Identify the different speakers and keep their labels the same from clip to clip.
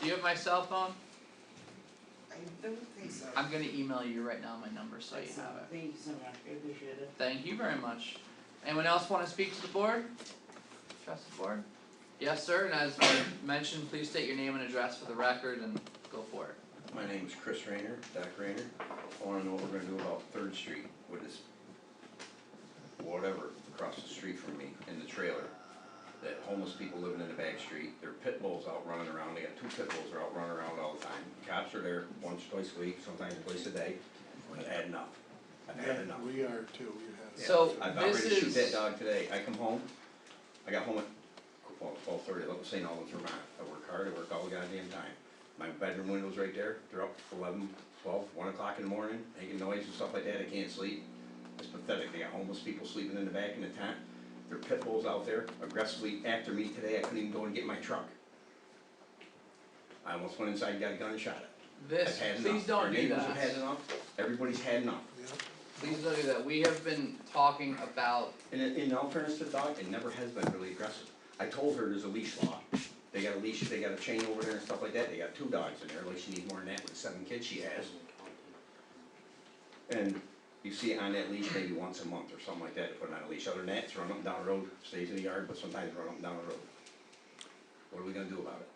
Speaker 1: Do you have my cell phone?
Speaker 2: I don't think so.
Speaker 1: I'm gonna email you right now my number so you
Speaker 2: Excellent.
Speaker 1: have it.
Speaker 2: Thank you so much, I appreciate it.
Speaker 1: Thank you very much. Anyone else wanna speak to the board? Trust the board? Yes, sir, and as I mentioned, please state your name and address for the record and go for it.
Speaker 3: My name is Chris Rayner, Doc Rayner. I wanna know what we're gonna do about Third Street with this, whatever, across the street from me in the trailer. That homeless people living in the back street, their pit bulls out running around, they got two pit bulls that are out running around all the time. Cops are there once, twice a week, sometimes twice a day. I've had enough. I've had enough.
Speaker 4: We are too, we had. it.
Speaker 1: So
Speaker 3: Yeah, I about ready to
Speaker 1: this
Speaker 3: shoot that
Speaker 1: is-
Speaker 3: dog today, I come home, I got home at, well, twelve thirty, Little St. Albans, Vermont, I work hard, I work all the goddamn time. My bedroom window's right there, they're up eleven, twelve, one o'clock in the morning, making noise and stuff like that, I can't sleep. It's pathetic, they got homeless people sleeping in the back in the tent, their pit bulls out there aggressively after me today, I couldn't even go and get my truck. I almost went inside and got a gun and shot it, I've
Speaker 1: This,
Speaker 3: had enough.
Speaker 1: please don't do
Speaker 3: Our neighbors have had
Speaker 1: that,
Speaker 3: enough, everybody's had enough.
Speaker 4: Yeah.
Speaker 1: please don't do that, we have been talking about,
Speaker 3: And in, in all fairness to the dog, it never has been really aggressive. I told her there's a leash law. They got a leash, they got a chain over there and stuff like that, they got two dogs in there, like she needs more than that with seven kids she has. And you see it on that leash maybe once a month or something like that, to put it on a leash, other than that, it's run up and down the road, stays in the yard, but sometimes run up and down the road. What are we gonna do about it?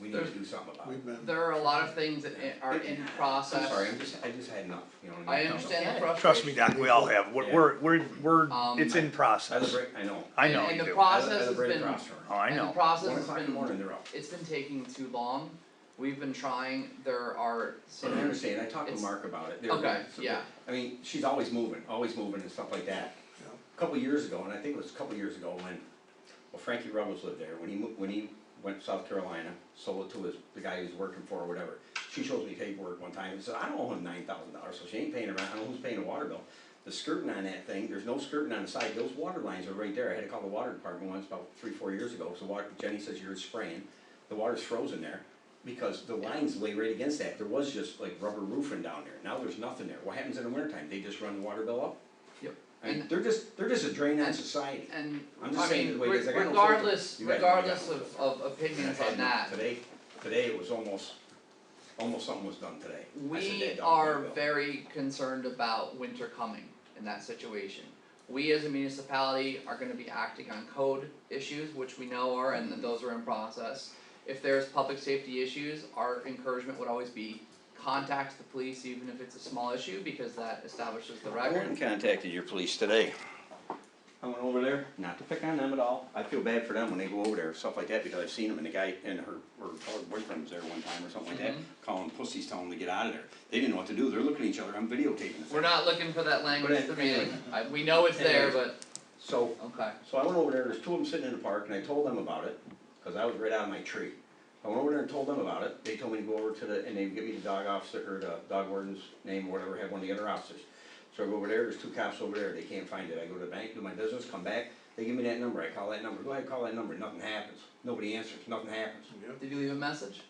Speaker 3: We need to do something about it.
Speaker 4: We've been.
Speaker 1: there are a lot of things that i- are in
Speaker 3: I'm
Speaker 1: process.
Speaker 3: sorry, I'm just, I just had enough, you know what I
Speaker 1: I
Speaker 3: mean?
Speaker 1: understand the frustration.
Speaker 5: Trust me, Doc, we all have, we're,
Speaker 3: Yeah.
Speaker 5: we're, we're,
Speaker 1: Um,
Speaker 5: we're, it's in
Speaker 3: I was
Speaker 5: process,
Speaker 3: right, I know.
Speaker 5: I know
Speaker 1: And- and
Speaker 5: you
Speaker 1: the
Speaker 5: do,
Speaker 1: pro-
Speaker 5: oh,
Speaker 3: I live-
Speaker 1: Process has
Speaker 3: I live right
Speaker 1: been-
Speaker 3: across from her.
Speaker 5: I
Speaker 1: And the
Speaker 5: know,
Speaker 1: process
Speaker 3: One
Speaker 1: has
Speaker 3: o'clock in the
Speaker 1: been,
Speaker 3: morning, they're up.
Speaker 1: it's been taking too long, we've been trying, there are
Speaker 3: So I
Speaker 1: scenarios,
Speaker 3: understand, I talked
Speaker 1: It's-
Speaker 3: to Mark about it. They were
Speaker 1: okay,
Speaker 3: both-
Speaker 1: yeah,
Speaker 3: I mean, she's always moving, always moving and stuff like that.
Speaker 4: Yeah.
Speaker 3: A Couple years ago, and I think it was a couple years ago when, well Frankie Rubbers lived there, when he moved, when he went to South Carolina, sold it to his, the guy he was working for or whatever. She shows me paperwork one time and said, I don't owe him nine thousand dollars, so she ain't paying her rent, I don't know who's paying the water bill. The skirting on that thing, there's no skirting on the side, those water lines are right there, I had to call the water department once about three, four years ago, so water, Jenny says you're spraying, the water's frozen there. Because the lines lay right against that, there was just like rubber roofing down there, now there's nothing there, what happens in the wintertime, they just run the water bill up?
Speaker 1: Yep.
Speaker 3: I mean,
Speaker 1: And-
Speaker 3: they're just, they're just a drain on
Speaker 1: and-
Speaker 3: society.
Speaker 1: and,
Speaker 3: I'm
Speaker 1: I
Speaker 3: just saying
Speaker 1: mean,
Speaker 3: the way it is,
Speaker 1: re-
Speaker 3: like, I don't filter.
Speaker 1: regardless,
Speaker 3: You guys know I don't
Speaker 1: regardless of,
Speaker 3: filter.
Speaker 1: of
Speaker 3: And I've
Speaker 1: opinions
Speaker 3: had
Speaker 1: on
Speaker 3: enough.
Speaker 1: that,
Speaker 3: Today, today it was almost, almost something was done today. I said,
Speaker 1: we
Speaker 3: "That dog
Speaker 1: are
Speaker 3: would've been
Speaker 1: very concerned about winter coming in that situation. We as a municipality are gonna be acting on code issues, which we know are, and that those are in process. If there's public safety issues, our encouragement would always be contact the police, even if it's a small issue, because that establishes the
Speaker 3: I
Speaker 1: record.
Speaker 3: went and contacted your police today. I went over there, not to pick on them at all, I feel bad for them when they go over there, stuff like that, because I've seen them, and the guy and her, her her boyfriend was there one time or something like that, calling pussies, telling them to get out of there. They didn't know what to do, they're looking at each other, I'm videotaping this.
Speaker 1: We're not looking for that language at the meeting, I, we know it's there, but,
Speaker 3: So,
Speaker 1: okay,
Speaker 3: So I went over there, there's two of them sitting in the park, and I told them about it, cause I was right out of my tree. I went over there and told them about it, they told me to go over to the, and they give me the dog officer, or the dog warden's name, or whatever, have one of the other officers. So I go over there, there's two cops over there, they can't find it, I go to the bank, do my business, come back, they give me that number, I call that number, go ahead, call that number, nothing happens, nobody answers, nothing happens.
Speaker 4: Yep.
Speaker 1: did you leave a message?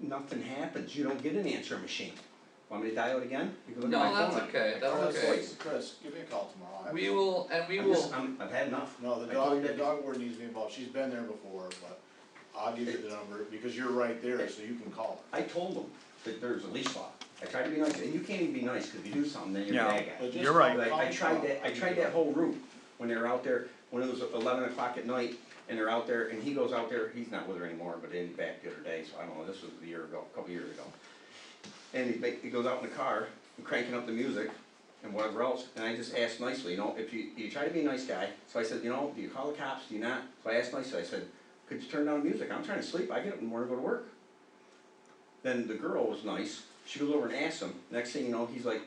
Speaker 3: Nothing happens, you don't get an answering machine. Want me to dial it again? You can look at
Speaker 1: No,
Speaker 3: my phone,
Speaker 1: that's
Speaker 3: I-
Speaker 1: okay,
Speaker 3: I
Speaker 1: that's
Speaker 3: call this
Speaker 1: okay.
Speaker 3: place.
Speaker 6: Chris, give me a call tomorrow. I-
Speaker 1: We will, and we
Speaker 3: I'm just,
Speaker 1: will,
Speaker 3: I'm, I've had enough.
Speaker 6: No, the
Speaker 3: I told
Speaker 6: dog,
Speaker 3: you
Speaker 6: the
Speaker 3: that
Speaker 6: dog warden needs to be involved, she's been there before, but I'll give you the number, because you're right there, so you can call her.
Speaker 3: I told them that there's a leash law. I tried to be nice, and you can't even be nice, cause if you do something, then you're a bad
Speaker 6: But
Speaker 3: guy.
Speaker 6: just
Speaker 5: You're right.
Speaker 6: call-
Speaker 3: Like, I
Speaker 6: call
Speaker 3: tried
Speaker 6: tomorrow.
Speaker 3: that, I tried that whole route, when they were out there, when it was eleven o'clock at night, and they're out there, and he goes out there, he's not with her anymore, but in back the other day, so I don't know, this was a year ago, a couple years ago. And he make, he goes out in the car, and cranking up the music, and whatever else, and I just asked nicely, you know, if you, you try to be a nice guy, so I said, you know, do you call the cops, do you not? So I asked nicely, I said, could you turn down the music, I'm trying to sleep, I get up in the morning, to go to work. Then the girl was nice. She goes over and asks him. Next thing you know, he's like,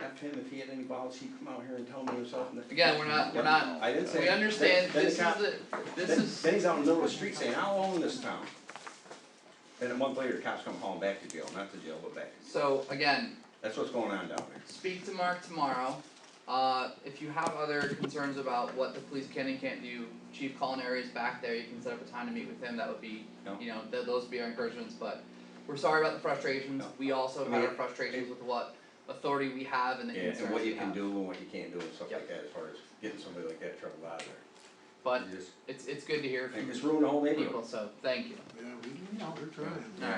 Speaker 3: F him, if he had any balls, he'd come out here and tell me himself. And that-
Speaker 1: Again, we're not- we're not-
Speaker 3: I didn't say.
Speaker 1: we understand,
Speaker 3: Then- then
Speaker 1: this is
Speaker 3: the cop-
Speaker 1: the, this
Speaker 3: then-
Speaker 1: is,
Speaker 3: Then he's out in the middle of the street saying, I'll own this town. Then a month later, the cops come hauling back to jail, not to jail, but back.
Speaker 1: so again,
Speaker 3: That's what's going on down there.
Speaker 1: speak to Mark tomorrow. Uh, if you have other concerns about what the police can and can't do, Chief Culinary is back there, you can set up a time to meet with him, that would be,
Speaker 3: No.
Speaker 1: you know, th- those would be our encouragements, but we're sorry about the frustrations,
Speaker 3: No.
Speaker 1: we also
Speaker 3: I
Speaker 1: have
Speaker 3: mean,
Speaker 1: our frustrations with what authority we have and the
Speaker 3: Yeah,
Speaker 1: concerns
Speaker 3: and what
Speaker 1: we
Speaker 3: you can
Speaker 1: have.
Speaker 3: do and what you can't do and stuff like that, as far as getting somebody like that in trouble out of there.
Speaker 1: but
Speaker 3: You just-
Speaker 1: it's it's good to hear
Speaker 3: It's
Speaker 1: from
Speaker 3: ruined the whole neighborhood.
Speaker 1: people, so thank you.
Speaker 4: Yeah, we, we're trying.
Speaker 1: Alright.